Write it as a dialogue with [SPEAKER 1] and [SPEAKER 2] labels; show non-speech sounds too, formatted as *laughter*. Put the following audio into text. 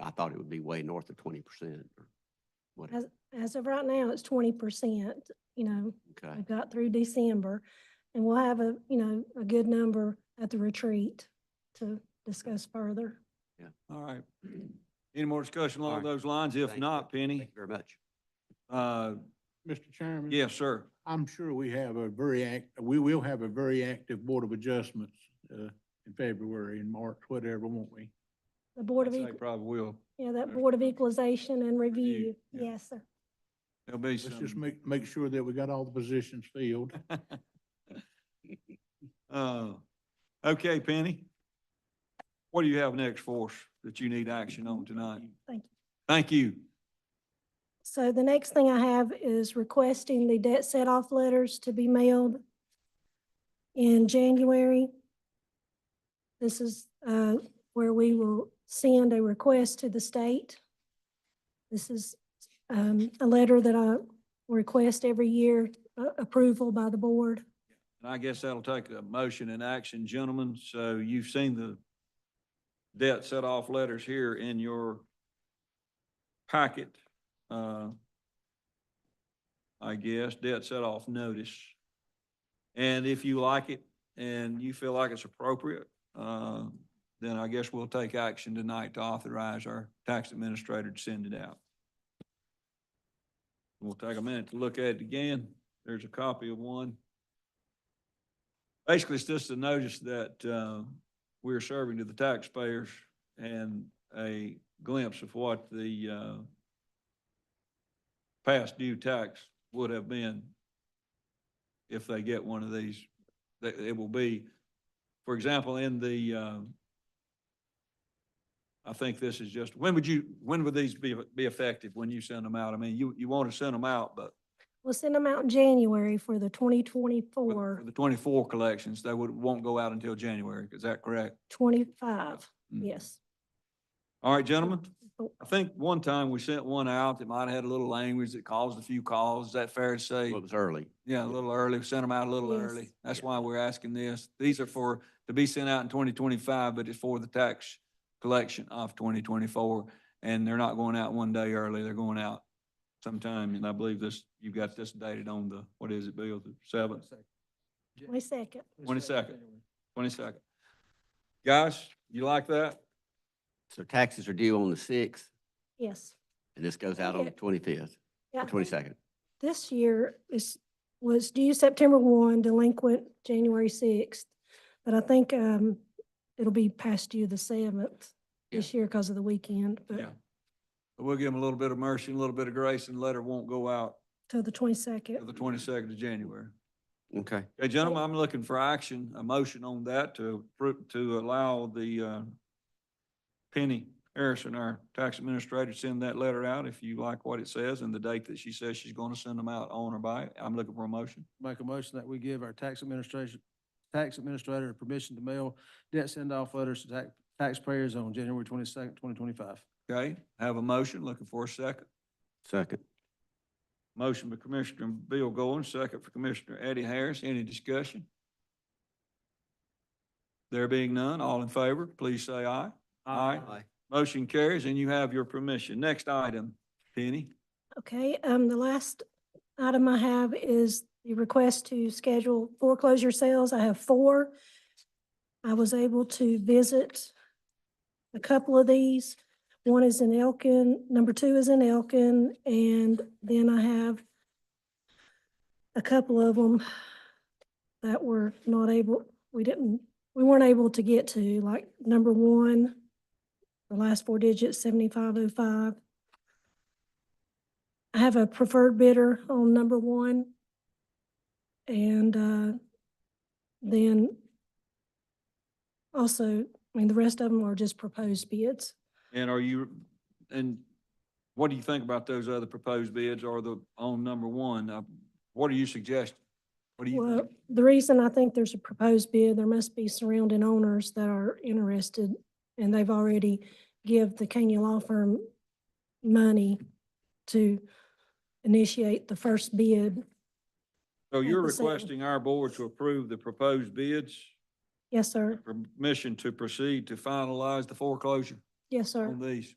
[SPEAKER 1] I thought it would be way north of twenty percent or
[SPEAKER 2] As,
[SPEAKER 1] whatever.
[SPEAKER 2] as of right now, it's twenty percent, you know,
[SPEAKER 1] Okay,
[SPEAKER 2] we've got through December. And we'll have a, you know, a good number at the retreat to discuss further.
[SPEAKER 3] All right. Any more discussion
[SPEAKER 1] All
[SPEAKER 3] along
[SPEAKER 1] right.
[SPEAKER 3] those lines?
[SPEAKER 1] Thank
[SPEAKER 3] If
[SPEAKER 1] you. thank
[SPEAKER 3] not,
[SPEAKER 1] you
[SPEAKER 3] Penny,
[SPEAKER 1] very much.
[SPEAKER 3] uh,
[SPEAKER 4] Mr. Chairman?
[SPEAKER 3] yes, sir.
[SPEAKER 4] I'm sure we have a very act, we will have a very active Board of Adjustments, uh, in February and March, whatever, won't we?
[SPEAKER 2] The Board
[SPEAKER 3] I'd
[SPEAKER 2] of,
[SPEAKER 3] say
[SPEAKER 2] Equ-
[SPEAKER 3] probably will.
[SPEAKER 2] yeah, that
[SPEAKER 3] uh,
[SPEAKER 2] Board of Equalization and Review.
[SPEAKER 3] Review, yeah.
[SPEAKER 2] Yes, sir.
[SPEAKER 3] There'll be
[SPEAKER 4] Let's just
[SPEAKER 3] some.
[SPEAKER 4] make, make sure that we got all the positions filled.
[SPEAKER 3] *laughs* Uh, okay, Penny. What do you have next for us that you need action on tonight?
[SPEAKER 2] Thank you.
[SPEAKER 3] Thank you.
[SPEAKER 2] So the next thing I have is requesting the debt set off letters to be mailed in January. This is uh, where we will send a request to the state. This is um, a letter that I request every year, uh, approval by the board.
[SPEAKER 3] And I guess that'll take a motion and action, gentlemen. So you've seen the debt set off letters here in your packet. uh, I guess, debt set off notice. And if you like it and you feel like it's appropriate, uh, then I guess we'll take action tonight to authorize our tax administrator to send it out. We'll take a minute to look at it again. There's a copy of one. Basically, it's just a notice that uh, we're serving to the taxpayers and a glimpse of what the uh, past due tax would have been if they get one of these. That it will be, for example, in the, um, I think this is just, when would you, when would these be, be effective when you send them out? I mean, you, you want to send them out, but
[SPEAKER 2] We'll send them out in January for the
[SPEAKER 3] for-
[SPEAKER 2] 2024,
[SPEAKER 3] for the twenty-four collections, they would, won't go out until January. Is that correct?
[SPEAKER 2] 25,
[SPEAKER 3] Mm.
[SPEAKER 2] yes.
[SPEAKER 3] All right, gentlemen,
[SPEAKER 2] Oh.
[SPEAKER 3] I think one time we sent one out that might have had a little language that caused a few calls. Is that fair to say?
[SPEAKER 1] Well, it was early.
[SPEAKER 3] Yeah, a little early, We sent them out a little
[SPEAKER 2] Yes.
[SPEAKER 3] early. That's why we're asking this. These are for, to be sent out in twenty twenty-five, but it's for the tax collection of twenty twenty-four. And they're not going out one day early, they're going out sometime, and I believe this, you've got this dated on the, what is it, Bill, the seventh?
[SPEAKER 2] Wait a second.
[SPEAKER 3] 22nd. Twenty-second. Guys, you like that?
[SPEAKER 1] So taxes are due on the sixth
[SPEAKER 2] yes.
[SPEAKER 1] and this goes out on the
[SPEAKER 2] Yeah.
[SPEAKER 1] twenty-fifth,
[SPEAKER 2] Yeah.
[SPEAKER 1] twenty-second.
[SPEAKER 2] This year is, was due September one, delinquent January sixth. But I think, um, it'll be past due the seventh
[SPEAKER 1] Yeah.
[SPEAKER 2] this year because of the weekend,
[SPEAKER 3] Yeah.
[SPEAKER 2] but
[SPEAKER 3] But We'll give them a little bit of mercy, and a little bit of grace, and the letter won't go out
[SPEAKER 2] till the
[SPEAKER 3] till
[SPEAKER 2] twenty-second.
[SPEAKER 3] the twenty-second of January.
[SPEAKER 1] Okay,
[SPEAKER 3] Okay, gentlemen, I'm looking for action, a motion on that to, appro- to allow the, uh, Penny Harrison, our tax administrator, to send that letter out if you like what it says and the date that she says she's going to send them out on or by. it. I'm looking for a motion.
[SPEAKER 5] Make a motion that we give our tax administration, tax administrator permission to mail debt send-off letters to tax taxpayers on January twenty-second, twenty twenty-five.
[SPEAKER 3] Okay, have a motion, looking for a second.
[SPEAKER 1] second.
[SPEAKER 3] Motion by Commissioner Bill Goins, second for Commissioner Eddie Harris. Any discussion? There being none, all in favor, please say aye. Aye. Motion carries and you have your permission. Next item, Penny.
[SPEAKER 2] Okay, um, the last item I have is the request to schedule foreclosure sales. I have four. I was able to visit a couple of these. One is in Elkin, number two is in Elkin, and then I have a couple of them that were not able, we didn't, we weren't able to get to, like number one, the last four digits, seventy-five oh five. I have a preferred bidder on number one. And uh, then also, I mean, the rest of them are just proposed bids.
[SPEAKER 3] And are you, and what do you think about those other proposed bids or the, on number one? Uh, What are you suggesting? What do you
[SPEAKER 2] Well,
[SPEAKER 3] think?
[SPEAKER 2] the reason I think there's a proposed bid, there must be surrounding owners that are interested, and they've already give the Kenya Law Firm money to initiate the first bid.
[SPEAKER 3] So you're
[SPEAKER 2] the same.
[SPEAKER 3] requesting our board to approve the proposed bids,
[SPEAKER 2] Yes, sir.
[SPEAKER 3] permission to proceed to finalize the foreclosure
[SPEAKER 2] Yes, sir.
[SPEAKER 3] on these?